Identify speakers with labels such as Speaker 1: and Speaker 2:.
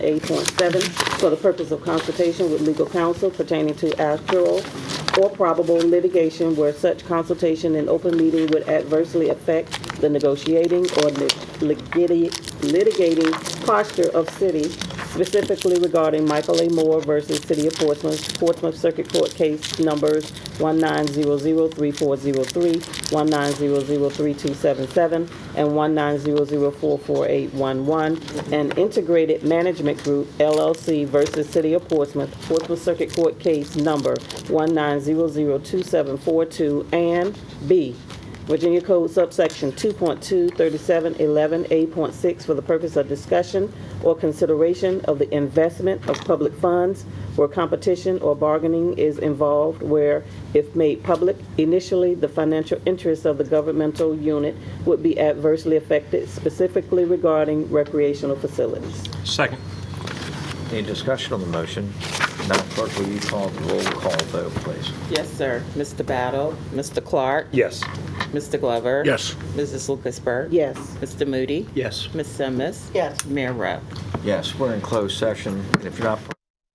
Speaker 1: A.7 for the purpose of consultation with legal counsel pertaining to actual or probable litigation where such consultation in open meeting would adversely affect the negotiating or lit- litigati- litigating posture of city, specifically regarding Michael A. Moore versus City of Portsmouth, Portsmouth Circuit Court Case Numbers 19003403, 19003277, and 19004481, and Integrated Management Group LLC versus City of Portsmouth, Portsmouth Circuit Court Case Number 19002742, and B, Virginia Code subsection 2.23711A.6 for the purpose of discussion or consideration of the investment of public funds where competition or bargaining is involved, where if made public, initially the financial interests of the governmental unit would be adversely affected, specifically regarding recreational facilities.
Speaker 2: Second.
Speaker 3: Any discussion on the motion? Madam Clerk, will you call the roll call vote, please?
Speaker 4: Yes, sir. Mr. Battle, Mr. Clark,
Speaker 2: Yes.
Speaker 4: Mr. Glover.
Speaker 2: Yes.
Speaker 4: Mrs. Lucasberg.
Speaker 1: Yes.
Speaker 4: Mr. Moody.
Speaker 2: Yes.
Speaker 4: Ms. Simmons.
Speaker 1: Yes.
Speaker 4: Mayor Rupp.
Speaker 3: Yes, we're in closed session, and if you're not